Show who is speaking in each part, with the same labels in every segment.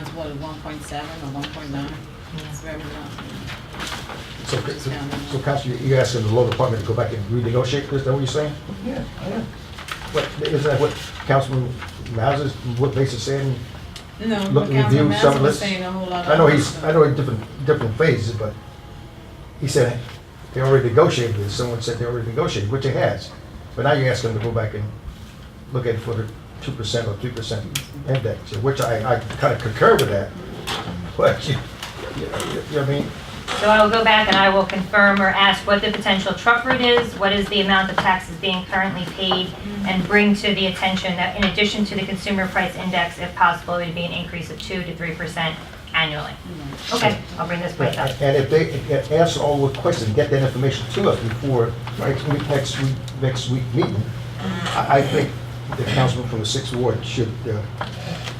Speaker 1: what, one point seven or one point nine? It's very low.
Speaker 2: So, so so Counselor, you asking the law department to go back and renegotiate this, is that what you're saying?
Speaker 3: Yeah, I am.
Speaker 2: What, isn't that what Councilman Mazza's, what Bates is saying?
Speaker 1: No,
Speaker 2: Look,
Speaker 1: but Councilman
Speaker 2: review some
Speaker 1: Mazza was
Speaker 2: list.
Speaker 1: saying a whole lot of.
Speaker 2: I know
Speaker 1: other
Speaker 2: he's,
Speaker 1: stuff.
Speaker 2: I know in different, different phases, but he said they already negotiated this, someone said they already negotiated, which it has. But now you're asking them to go back and look at it for the two percent or three percent index, which I, I kind of concur with that. But you, you you know what I mean?
Speaker 4: So I will go back and I will confirm or ask what the potential truck route is, what is the amount of taxes being currently paid, and bring to the attention that in addition to the consumer price index, if possible, it would be an increase of 2 to 3% annually. Okay, I'll bring this back up.
Speaker 2: And if they can answer all the questions, get that information to us before next week, next week, next week meeting, I, I think the councilman from the sixth ward should uh,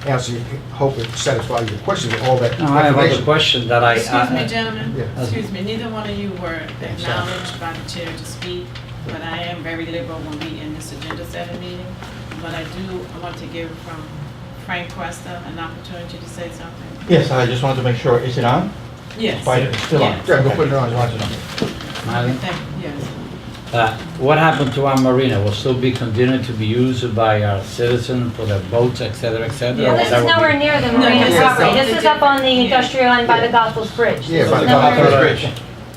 Speaker 2: answer, hope it satisfies your question with all that
Speaker 5: No, I have other
Speaker 2: information.
Speaker 5: questions that I. uh,
Speaker 1: Excuse me,
Speaker 2: Yeah.
Speaker 1: gentlemen,
Speaker 2: That's-
Speaker 1: excuse me, neither one of you were
Speaker 2: sorry.
Speaker 1: acknowledged by the chair to speak, but I am very liberal when we in this agenda setting meeting. But I do, I want to give from Frank Cuesta an opportunity to say something.
Speaker 3: Yes, I just wanted to make sure, is it on?
Speaker 1: Yes.
Speaker 3: Fine, it's still on.
Speaker 1: Yes.
Speaker 2: Yeah, go put it on, watch it on.
Speaker 5: Madam,
Speaker 1: Thank, yes.
Speaker 5: uh, What happened to our marina? Will still be continued to be used by our citizens for their boats, et cetera, et cetera?
Speaker 1: Yeah,
Speaker 5: or
Speaker 4: This
Speaker 5: that
Speaker 4: is
Speaker 5: would be-
Speaker 4: nowhere near the
Speaker 1: No,
Speaker 4: marina
Speaker 2: this is
Speaker 4: property.
Speaker 1: something
Speaker 4: This is up on the industrial end by the Gospels Bridge.
Speaker 2: Yeah,
Speaker 4: This
Speaker 2: by
Speaker 4: is
Speaker 2: the
Speaker 4: nowhere-
Speaker 2: Gospels
Speaker 5: Right.
Speaker 2: Bridge.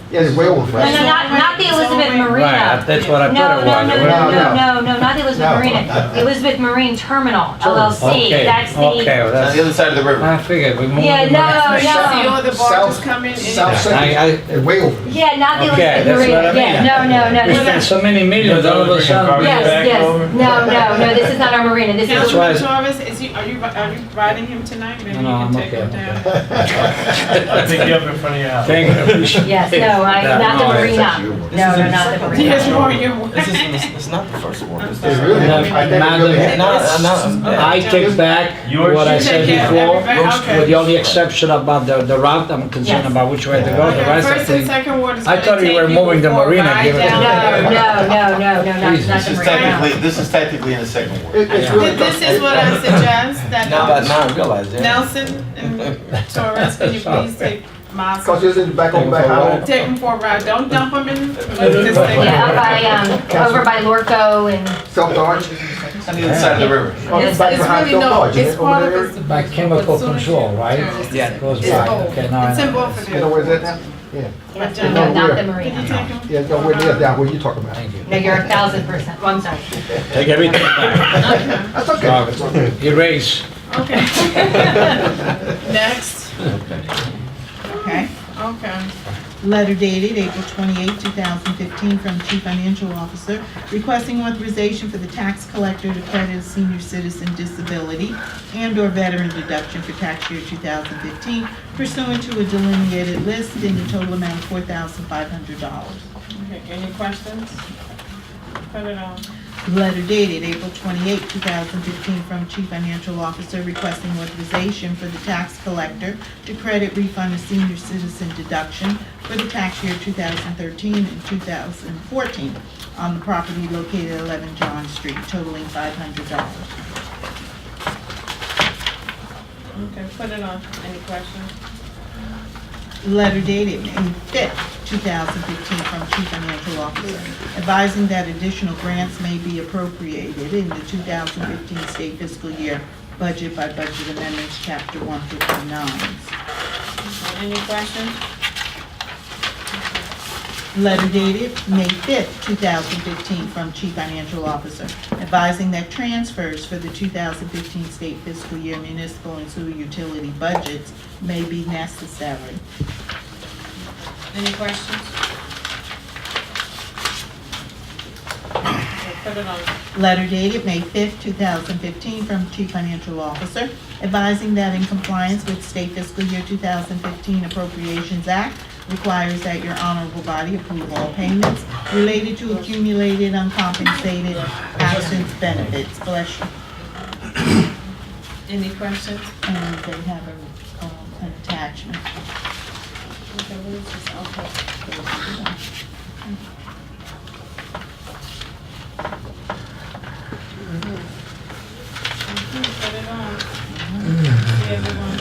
Speaker 2: Yeah, it's way over.
Speaker 4: No, no, not, not the Elizabeth
Speaker 5: Right,
Speaker 4: Marina.
Speaker 5: that's what I
Speaker 4: No,
Speaker 5: thought it
Speaker 4: no, no,
Speaker 5: was.
Speaker 2: No,
Speaker 4: no,
Speaker 2: no.
Speaker 4: no, no, no, not the Elizabeth
Speaker 2: No.
Speaker 4: Marina. Elizabeth Marine Terminal
Speaker 2: Terminal.
Speaker 4: LLC.
Speaker 5: Okay,
Speaker 4: That's the,
Speaker 5: Okay, well,
Speaker 3: On the other
Speaker 5: that's,
Speaker 3: side of the river.
Speaker 5: I figured we moved.
Speaker 4: Yeah,
Speaker 5: the
Speaker 4: no,
Speaker 5: marina.
Speaker 4: no.
Speaker 1: See all the barges
Speaker 2: South-
Speaker 1: coming in.
Speaker 2: South
Speaker 5: Yeah, I-
Speaker 2: Central, way over.
Speaker 4: yeah, not the
Speaker 5: Okay,
Speaker 4: Elizabeth
Speaker 5: that's what I
Speaker 4: Marina. Yeah,
Speaker 5: mean.
Speaker 4: no, no, no.
Speaker 5: We
Speaker 4: this is-
Speaker 5: spent so many millions, all of a sudden.
Speaker 4: Yes, yes. No, no, no, this is not our marina. This is,
Speaker 5: why-
Speaker 1: Councilman Torres, is he, are you, are you riding him tonight? Maybe you
Speaker 5: No,
Speaker 1: can
Speaker 5: I'm
Speaker 1: take him
Speaker 5: okay, I'm
Speaker 1: down.
Speaker 6: I think you have in front of your house.
Speaker 5: Thank you. appreciate
Speaker 4: yes, no, I,
Speaker 5: that.
Speaker 4: not
Speaker 5: No,
Speaker 4: the
Speaker 5: I-
Speaker 4: marina. No, no, not the marina.
Speaker 1: Yes, you are, you are.
Speaker 6: This is, this is not the first one. This
Speaker 2: It
Speaker 6: is-
Speaker 2: really, I think it really
Speaker 5: Madam-
Speaker 2: happened.
Speaker 6: No, no,
Speaker 5: I take back
Speaker 6: Yours-
Speaker 5: what I
Speaker 6: You
Speaker 5: said
Speaker 1: take care of
Speaker 5: before,
Speaker 1: everybody, okay.
Speaker 5: with the only exception about the, the route, I'm concerned
Speaker 4: Yes.
Speaker 5: about which way to go, the
Speaker 1: Okay,
Speaker 5: rest I
Speaker 1: first and
Speaker 5: think.
Speaker 1: second ward is
Speaker 5: I
Speaker 1: gonna
Speaker 5: thought you
Speaker 1: take
Speaker 5: were moving the
Speaker 1: for a
Speaker 5: marina,
Speaker 1: ride
Speaker 5: give it to
Speaker 1: down
Speaker 5: the-
Speaker 4: No,
Speaker 1: there.
Speaker 4: no, no, no, no, not, not
Speaker 5: Jesus.
Speaker 4: the
Speaker 3: This is
Speaker 4: marina.
Speaker 3: technically, this is technically in the second ward.
Speaker 2: It- It's
Speaker 5: Yeah.
Speaker 2: really.
Speaker 1: Th- This is what I suggest,
Speaker 6: Now, I-
Speaker 1: that
Speaker 6: now I realize, yeah.
Speaker 1: Nelson and Torres, can you please take
Speaker 2: Cause
Speaker 1: Mazza?
Speaker 2: it's in the back on back highway.
Speaker 1: Take him for a ride, don't dump him in, let's just take
Speaker 4: Yeah,
Speaker 1: him.
Speaker 4: up by, um, over by Lorco and,
Speaker 2: South Orange.
Speaker 3: On the other side of the river.
Speaker 2: on the
Speaker 1: It's
Speaker 2: back
Speaker 1: it's
Speaker 2: behind
Speaker 1: really
Speaker 2: South
Speaker 1: no,
Speaker 2: Orange, isn't
Speaker 1: it's
Speaker 2: it, over
Speaker 1: part of
Speaker 2: there?
Speaker 1: his.
Speaker 5: By chemical control, right?
Speaker 1: Yeah.
Speaker 5: Goes
Speaker 1: It's
Speaker 5: by,
Speaker 1: old.
Speaker 5: okay, now I
Speaker 1: It's in
Speaker 5: know.
Speaker 1: both of
Speaker 2: You know
Speaker 1: you.
Speaker 2: where that now? Yeah,
Speaker 4: yes, no, not the
Speaker 1: Can you
Speaker 4: marina.
Speaker 1: take him?
Speaker 2: yeah, no, where near down, where you talking about.
Speaker 5: Thank you.
Speaker 4: No, you're a thousand percent, well, I'm sorry.
Speaker 5: Take everything back.
Speaker 2: That's okay, that's okay.
Speaker 5: Erase.
Speaker 1: Okay. Next.
Speaker 7: Okay.
Speaker 1: Okay.
Speaker 7: Letter dated April 28, 2015, from Chief Financial Officer requesting authorization for the tax collector to credit a senior citizen disability and/or veteran deduction for tax year 2015 pursuant to a delineated list in the total amount of $4,500.
Speaker 1: Okay, Any questions? Put it on.
Speaker 7: Letter dated April 28, 2015, from Chief Financial Officer requesting authorization for the tax collector to credit refund a senior citizen deduction for the tax year 2013 and 2014 on the property located at 11 John Street totaling $500.
Speaker 1: Okay, put it on. Any questions?
Speaker 7: letter dated May 5th, 2015, from Chief Financial Officer, advising that additional grants may be appropriated in the 2015 state fiscal year budget by budget amendments, Chapter 159.
Speaker 1: Any questions?
Speaker 7: Letter dated May 5th, 2015, from Chief Financial Officer, advising that transfers for the 2015 state fiscal year municipal and sewer utility budgets may be necessary.
Speaker 1: Any questions? Okay, Put it on.
Speaker 7: Letter dated May 5th, 2015, from Chief Financial Officer advising that in compliance with State Fiscal Year 2015 Appropriations Act requires that your honorable body approve all payments related to accumulated uncompensated absence benefits. Bless you.
Speaker 1: Any questions?
Speaker 7: And they have a, um, an attachment.
Speaker 1: Okay, we'll just, okay. Put it on. See everyone.